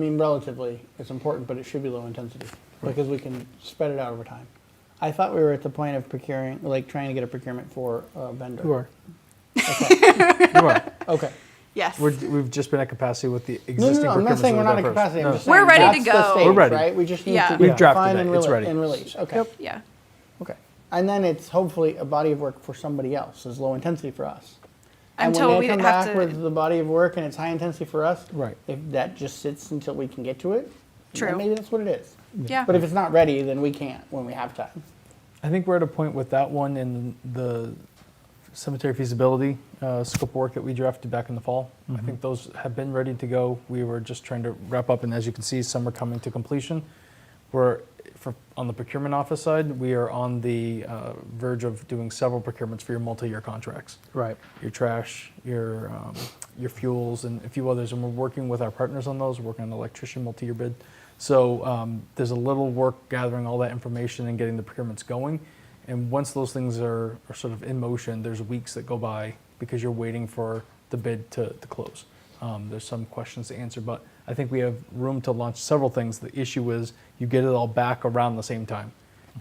I mean, relatively, it's important, but it should be low intensity because we can spread it out over time. I thought we were at the point of procuring, like trying to get a procurement for a vendor. You are. You are. Okay. Yes. We're, we've just been at capacity with the existing. No, no, no, I'm not procurements saying we're that we've not done at first. capacity. I'm No. just saying We're ready to that's the go. stage, We're ready. Right? We just need Yeah. to We've drafted define that. and, It's rele- ready. and release. Okay. yeah. Okay. And then it's hopefully a body of work for somebody else is low intensity for us. And Until when we they come have back to- with the body of work and it's high intensity for us, Right. if that just sits until we can get to it, then True. maybe that's what it is. Yeah. But if it's not ready, then we can't when we have time. I think we're at a point with that one and the cemetery feasibility uh, scope of work that we drafted back in the fall. Mm-hmm. I think those have been ready to go. We were just trying to wrap up, and as you can see, some are coming to completion. We're for, on the procurement office side. We are on the uh, verge of doing several procurements for your multi-year contracts. Right. your trash, your um, your fuels, and a few others. And we're working with our partners on those. We're working on an electrician multi-year bid. So um, there's a little work gathering all that information and getting the procurements going. And once those things are, are sort of in motion, there's weeks that go by because you're waiting for the bid to, to close. Um, there's some questions to answer, but I think we have room to launch several things. The issue is you get it all back around the same time.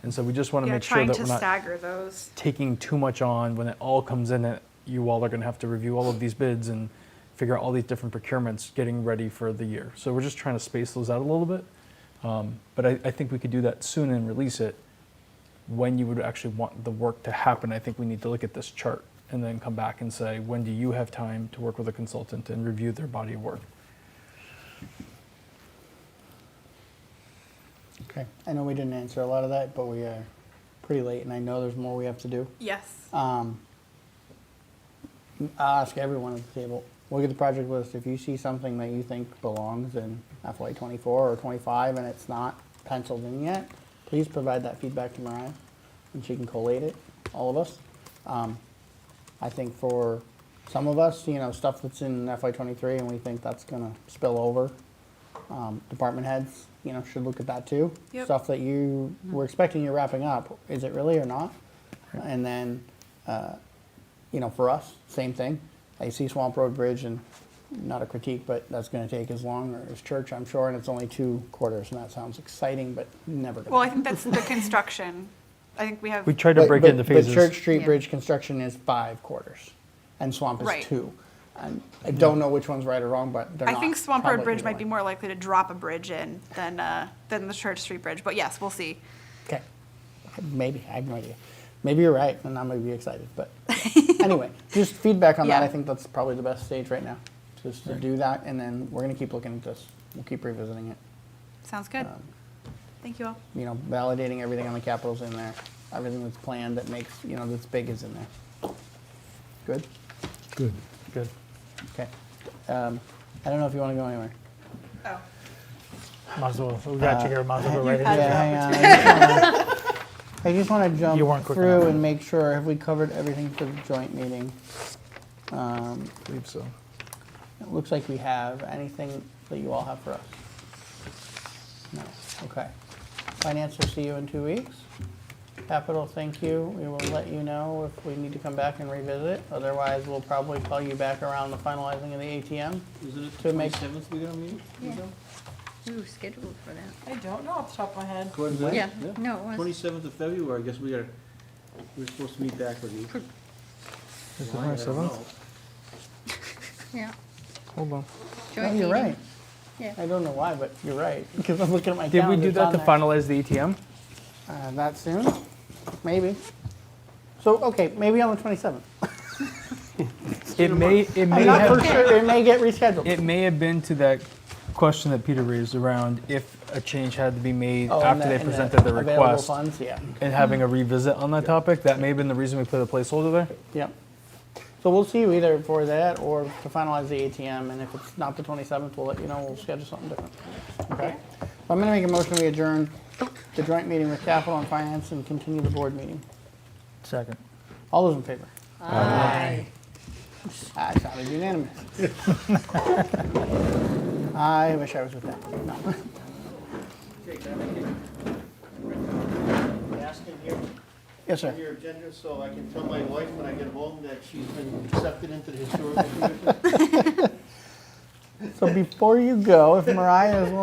And so we just want to yeah, make sure trying that to we're not stagger those. taking too much on when it all comes in that you all are going to have to review all of these bids and figure out all these different procurements getting ready for the year. So we're just trying to space those out a little bit. Um, but I, I think we could do that soon and release it when you would actually want the work to happen. I think we need to look at this chart and then come back and say, when do you have time to work with a consultant and review their body of work? Okay. I know we didn't answer a lot of that, but we are pretty late, and I know there's more we have to do. Yes. Um, I ask everyone at the table, look at the project list. If you see something that you think belongs in FY twenty-four or twenty-five and it's not penciled in yet, please provide that feedback to Mariah and she can collate it, all of us. Um, I think for some of us, you know, stuff that's in FY twenty-three and we think that's gonna spill over, um, department heads, you know, should look at that too. Yep. Stuff that you were expecting you're wrapping up, is it really or not? And then, uh, you know, for us, same thing. I see Swamp Road Bridge and not a critique, but that's gonna take as long or as church, I'm sure, and it's only two quarters and that sounds exciting, but never gonna. Well, I think that's the construction. I think we have. We tried to But- break but- it into phases. But Church Street Yeah. Bridge construction is five quarters, and Swamp Right. is two. And I don't know which one's right or wrong, but they're I not. think Swamp Road probably Bridge either might be way. more likely to drop a bridge in than uh, than the Church Street Bridge. But yes, we'll see. Okay, maybe, I have no idea. Maybe you're right, and I'm gonna be excited, but yeah. anyway, just feedback on that. Yeah. I think that's probably the best stage right now, just to do that, and then we're gonna keep looking at this. We'll keep revisiting it. Sounds good. Um, Thank you all. You know, validating everything on the capitals in there, everything that's planned that makes, you know, that's big is in there. Good? Good. Good. Okay. Um, I don't know if you wanna go anywhere. Oh. Might as well. We got you here. Might as well go right into it. Yeah, hang on. I just wanna- I just want to You weren't jump quick through enough. and make sure, have we covered everything for the joint meeting? Um, I believe so. It looks like we have. Anything that you all have for us? No, okay. Finance will see you in two weeks. Capital, thank you. We will let you know if we need to come back and revisit. Otherwise, we'll probably call you back around the finalizing of the ATM. Isn't it To make- twenty-seventh we gonna meet? Yeah. We were scheduled for that. I don't know off the top of my head. Yeah, no, it was. Twenty-seventh of February, I guess we are, we're supposed to meet back with you. Is it Why, I don't 27th? know. Yeah. Hold on. No, Oh, joint you're meeting. right. Yeah. I don't know why, but you're right, because I'm looking at my Did calendar. we do it's that on to there. finalize the ETM? Uh, that soon? Maybe. So, okay, maybe on the 27th. It may, it may I'm have. not for sure, it may get rescheduled. It may have been to that question that Peter raised around if a change had to be made Oh, and after the- they and the presented the Available Mm-hmm. request funds, yeah, and having a revisit on that topic. That may have been the reason we put a placeholder there. yep. So we'll see you either for that or to finalize the ATM, and if it's not the 27th, we'll let you know, we'll schedule something different. Okay? So I'm gonna make a motion, we adjourn the joint meeting with capital and finance and continue the board meeting. Second. All those in favor? Aye. Aye, it's not unanimous. I wish I was with that. No. Ask in here, Yes, sir. on your agenda, so I can tell my wife when I get home that she's been accepted into the historical commission. So before you go, if Mariah is willing